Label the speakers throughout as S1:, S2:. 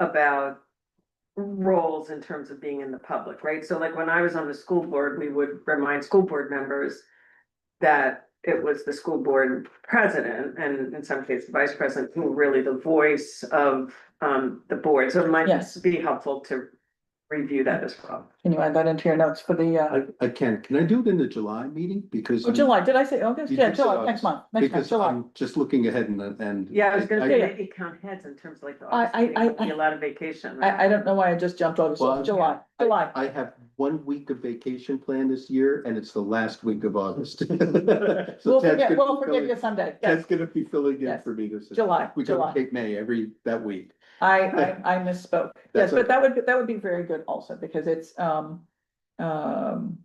S1: about roles in terms of being in the public, right? So like when I was on the school board, we would remind school board members that it was the school board president and in some cases vice president who were really the voice of um the board. So it might
S2: Yes.
S1: be helpful to review that as well.
S2: Can you add that into your notes for the, uh,
S3: I, I can, can I do it in the July meeting? Because.
S2: oh,
S3: I'm-
S2: July, did I say August?
S3: You
S2: Yeah,
S3: did say
S2: July,
S3: August.
S2: next month, next month,
S3: Because
S2: July.
S3: I'm just looking ahead and, and.
S1: Yeah, I was gonna say
S2: Yeah.
S1: maybe count heads in terms of like the
S2: I-
S1: office
S2: I-
S1: meeting,
S2: I-
S1: would be a lot of vacation. right?
S2: I, I don't know why I just jumped August,
S3: Well,
S2: July, July.
S3: I have one week of vacation planned this year and it's the last week of August. So
S2: We'll
S3: Ted's
S2: forget,
S3: gonna
S2: we'll
S3: be
S2: forget
S3: filling-
S2: you someday, yes,
S3: Ted's gonna be filling in
S2: Yes.
S3: for me this.
S2: July,
S3: We go
S2: July.
S3: to Cape May every, that week.
S2: I, I, I misspoke. Yes,
S3: That's
S2: but that would, be- that would be very good also, because it's, um, um,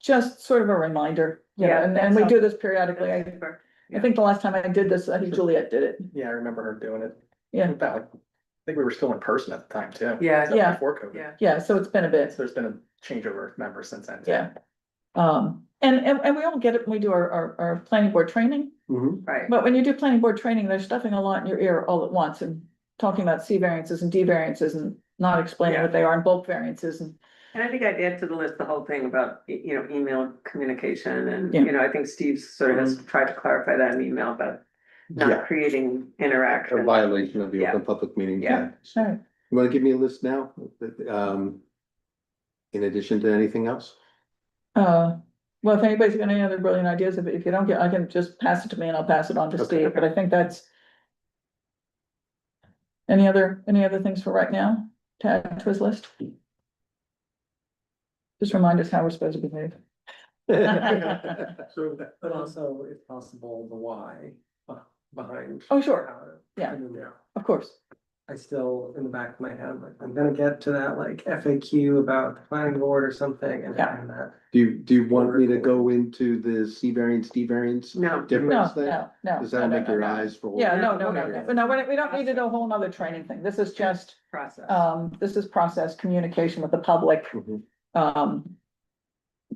S2: just sort of a reminder, you know,
S1: Yeah,
S2: and,
S1: that
S2: and we do this periodically.
S1: That's
S2: I,
S1: super.
S2: I think the last time I did this, I think Juliet did it.
S4: Yeah, I remember her doing it.
S2: Yeah.
S4: In fact, I think we were still in person at the time too.
S1: Yeah,
S4: That was
S2: Yeah.
S4: Before COVID.
S1: Yeah.
S2: Yeah, so it's been a bit.
S4: So there's been a changeover of members since then. too.
S2: Yeah. Um, and, and, and we all get it when we do our, our, our planning board training,
S3: Mhm.
S1: right.
S2: but when you do planning board training, they're stuffing a lot in your ear all at once and talking about C variances and D variances and not explaining what they are and bulk variances and,
S1: And I think I'd add to the list the whole thing about, y- you know, email communication and,
S2: Yeah.
S1: you know, I think Steve sort of has tried to clarify that in the email, but
S3: Yeah,
S1: not creating
S3: a
S1: interaction.
S3: violation of the
S1: Yeah.
S3: open public meeting.
S1: Yeah.
S3: Act.
S2: All right.
S3: You wanna give me a list now? Um, in addition to anything else?
S2: uh, well, if anybody's got any other brilliant ideas, if, if you don't get, I can just pass it to me and I'll pass it on to
S3: Okay.
S2: Steve, but I think that's any other, any other things for right now to add to his list? Just remind us how we're supposed to behave.
S4: So, but also if possible, the why behind.
S2: Oh, sure,
S5: uh,
S2: yeah. of course.
S5: I still, in the back of my head, I'm like, I'm gonna get to that like FAQ about the planning board or something and
S2: Yeah.
S5: having that.
S3: Do you, do you want me to go into the C variance, D variance?
S1: No,
S2: No,
S3: Difference there?
S2: no, no.
S3: Does
S2: no,
S3: that
S2: no,
S3: make
S2: no,
S3: your
S2: no.
S3: eyes roll?
S2: Yeah, no, no, no,
S3: Okay.
S2: no, no, we we don't need to do a whole nother training thing. This is just,
S1: process.
S2: um, this is process, communication with the public,
S3: Mhm.
S2: um.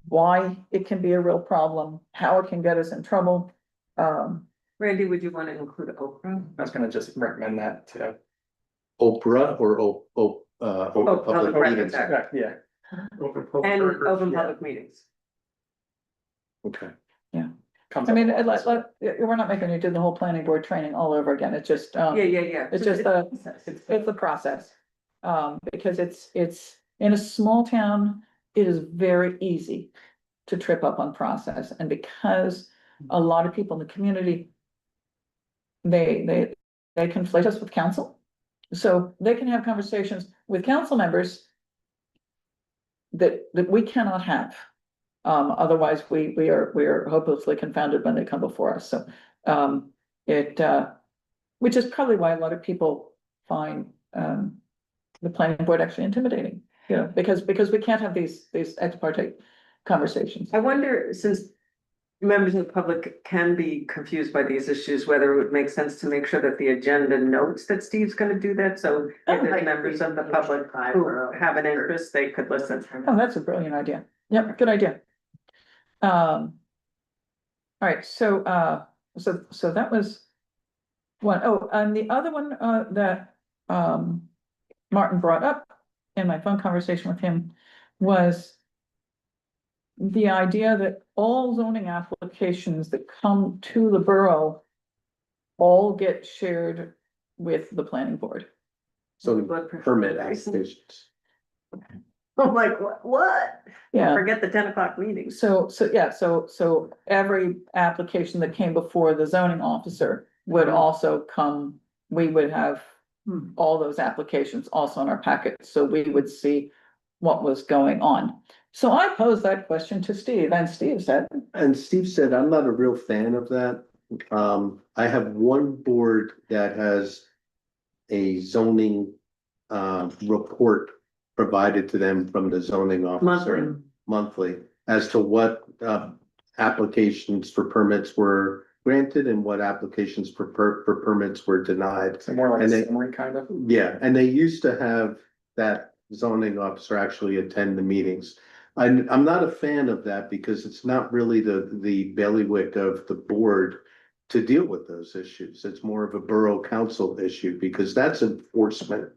S2: Why it can be a real problem, how it can get us in trouble, um,
S1: Randy, would you want to include Oprah?
S4: I was gonna just recommend that too.
S3: Oprah or O, O, uh,
S1: Oh,
S3: Open
S1: public
S3: Public
S1: records
S3: Meetings?
S1: act.
S3: Act?
S2: Uh-huh.
S4: Yeah, Yeah.
S1: And open public meetings.
S3: Okay.
S4: Comes
S2: I
S4: up
S2: mean,
S4: a lot.
S2: it- let, let, we're not making you do the whole planning board training all over again. It's just, um.
S1: Yeah, yeah, yeah.
S2: It's just a-
S1: process.
S2: It's, it's a process, um, because it's, it's, in a small town, it is very easy to trip up on process, and because a lot of people in the community, they, they, they conflate us with council, so they can have conversations with council members that, that we cannot have. Um, otherwise, we, we are, we are hopelessly confounded when they come before us, so, um, it, uh, which is probably why a lot of people find um the planning board actually intimidating, you know, because because we can't have these these ex parte conversations.
S1: I wonder, since members of the public can be confused by these issues, whether it would make sense to make sure that the agenda notes that Steve's gonna do that, so if there's members of the public who have an interest, they could listen.
S2: Oh, that's a brilliant idea. Yep, good idea. Um. All right, so uh, so so that was one. Oh, and the other one uh that um Martin brought up in my phone conversation with him was the idea that all zoning applications that come to the borough all get shared with the planning board.
S3: So permit applications.
S1: I'm like, "Wha- what?
S2: Yeah.
S1: Forget the ten o'clock meetings.
S2: So, so, yeah, so, so every application that came before the zoning officer would also come, we would have
S1: Hmm.
S2: all those applications also in our packet, so we would see what was going on. So I posed that question to Steve, and Steve said,
S3: And Steve said, I'm not a real fan of that. Um, I have one board that has a zoning, um, report provided to them from the zoning officer
S1: Monthly.
S3: monthly as to what, uh, applications for permits were granted and what applications for per, for permits were denied.
S4: So more like
S3: And
S4: a
S3: they-
S4: summary kind of.
S3: Yeah, and they used to have that zoning officer actually attend the meetings. I'm, I'm not a fan of that because it's not really the, the bailiwick of the board to deal with those issues. It's more of a borough council issue because that's enforcement